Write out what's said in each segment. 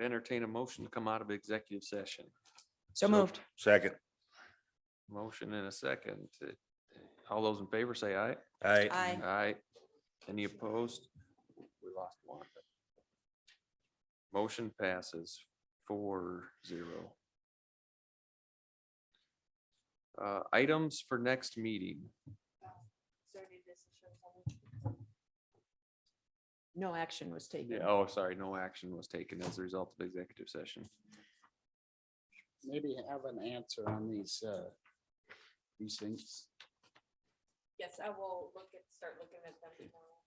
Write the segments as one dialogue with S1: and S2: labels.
S1: entertain a motion to come out of executive session.
S2: So moved.
S3: Second.
S1: Motion in a second. All those in favor say aye.
S3: Aye.
S2: Aye.
S1: Aye. Any opposed? We lost one. Motion passes four zero. Uh, items for next meeting.
S2: No action was taken.
S1: Yeah, oh, sorry, no action was taken as a result of executive session.
S4: maybe have an answer on these, uh, these things.
S5: Yes, I will look at, start looking at them tomorrow.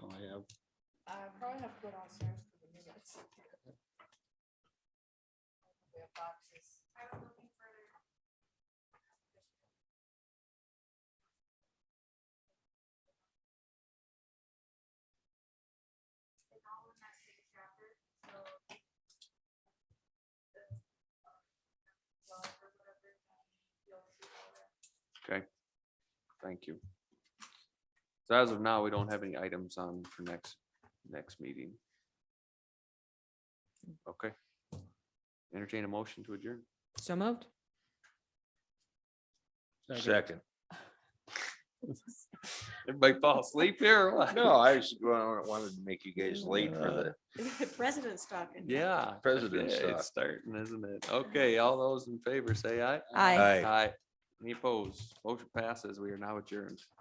S4: Oh, I have,
S5: I probably have to go downstairs for the minutes. We have boxes.
S1: Thank you. So as of now, we don't have any items on for next, next meeting. Okay. Entertain a motion to adjourn.
S2: So moved.
S3: Second.
S1: Everybody fall asleep here? or what?
S3: No, I was, well, I wanted to make you guys late for the
S5: President's talking.
S1: Yeah.
S3: President's
S1: yeah,
S3: talk.
S1: It's starting, isn't it? Okay, all those in favor, say aye.
S2: Aye.
S3: Aye.
S1: Aye. Any opposed? Motion passes. We are now adjourned.